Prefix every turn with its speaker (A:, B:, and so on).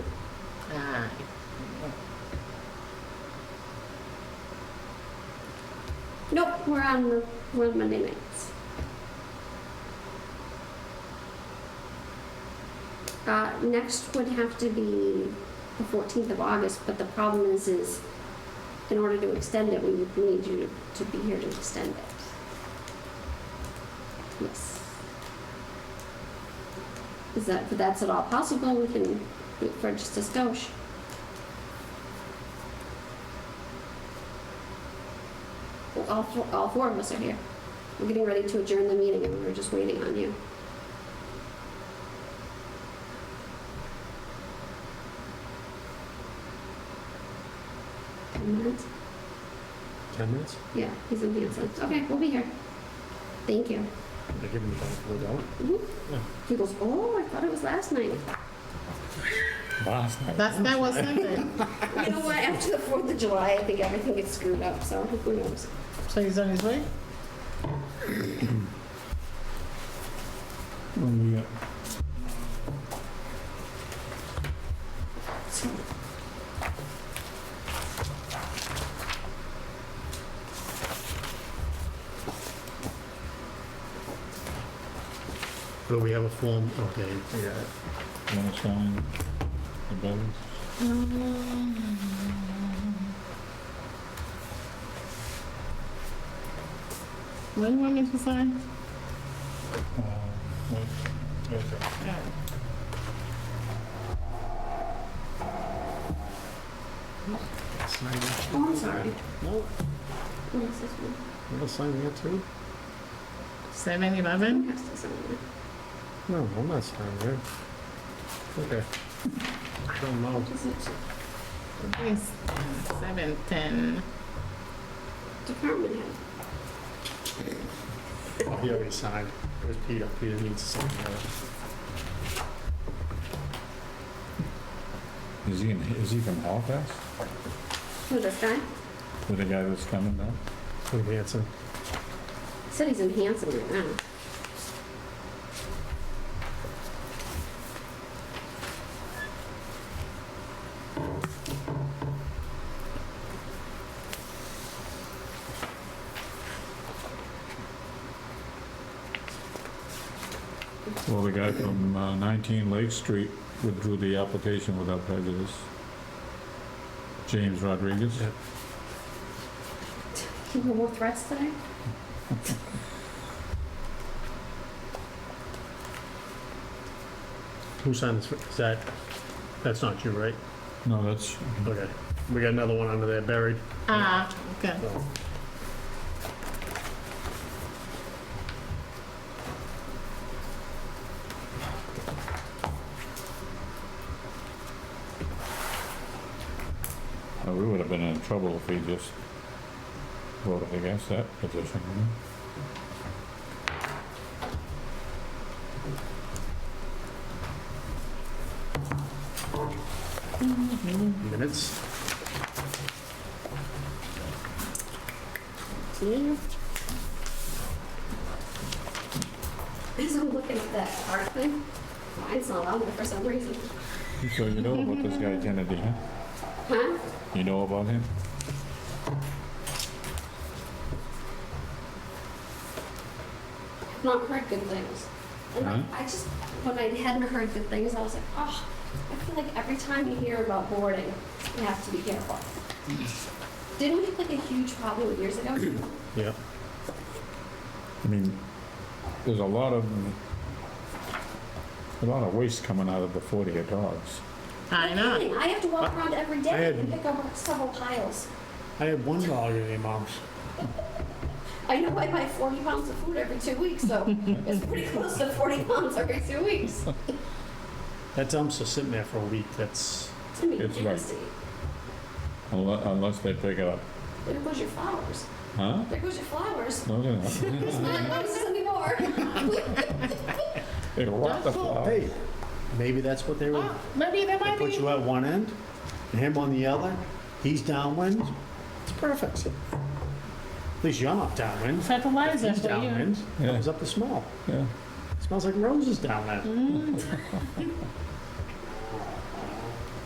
A: Nope, we're on, the- we're on Monday nights. Uh, next would have to be the fourteenth of August, but the problem is, is in order to extend it, we would need you to be here to extend it. Yes. Is that, if that's at all possible, we can wait for just a skosh. Well, All four, all four of us are here. We're getting ready to adjourn the meeting and we're just waiting on you. Ten minutes?
B: 10 minutes?
A: Yeah, he's in Hanson. Okay, we'll be here. Thank you.
B: I give him the benefit of the doubt.
A: Mhm. He goes, oh, I thought it was last night.
B: Last night.
C: That's, that was something.
A: You know what, after the Fourth of July, I think everything gets screwed up, so who knows?
C: So he's on his way?
A: So,
B: Do we have a form? Okay. Yeah.
D: Want to sign the bills?
C: What do you want me to sign?
D: Uh, wait, okay.
B: Sign that.
A: Oh, I'm sorry.
B: No,
A: Oh, this is one.
B: you don't sign that too?
C: Seven
A: Someone
C: eleven?
A: has to sign it.
B: No, I'm not signing that. Okay. I don't know.
A: Is it
C: Yes. Seven ten.
A: department head?
B: Oh, He already signed. There's Peter. Peter needs to sign that.
D: Is he, in- is he from Halifax?
A: Who, this guy?
D: With the guy that's coming down?
B: From Hanson.
A: Said he's in Hanson right now.
D: Well, the guy from uh, 19 Lake Street withdrew the application without prejudice. James Rodriguez?
B: Yeah.
A: He were more threats today?
B: Who signed this? Is that, that's not you, right?
D: No, that's,
B: Okay. We got another one under there buried.
C: Ah, okay.
B: No.
D: uh, we would have been in trouble if he just voted against that petition. wouldn't
B: Minutes.
A: Yeah. As I'm looking at that art thing, mine's not on there for some reason.
D: he? So you know about this guy Kennedy, huh?
A: Huh?
D: You know about him?
A: not heard good things. And
D: Huh?
A: I just, when I hadn't heard good things, I was like, oh, I feel like every time you hear about boarding, you have to be careful. Didn't we have like a huge problem years ago?
B: Yeah.
D: I mean, there's a lot of, a lot of waste coming out of the 40 of dogs.
C: I know.
A: I have to walk around every day
B: had-
A: and pick up several piles.
B: I had one dog in the mom's.
A: I know I buy 40 pounds of food every two weeks, so it's pretty close to 40 pounds every two weeks.
B: That dumpster's sitting there for a week. That's,
A: To me,
D: It's
A: it's
D: right.
A: nasty.
D: Unless, unless they pick it up.
A: There goes your flowers.
D: Huh?
A: There goes your flowers.
D: No, they're not.
A: It's
D: Mm.
A: not roses anymore.
D: They walk the flower.
B: Oh, hey, maybe that's what they were.
C: Oh, maybe there
B: I
C: might
B: put
C: be.
B: you at one end, and him on the other. He's downwind. It's perfect. At least you're not downwind.
C: Fertilizer
B: He's
C: for you.
B: downwind.
D: Yeah.
B: Comes up the small.
D: Yeah.
B: Smells like roses down there.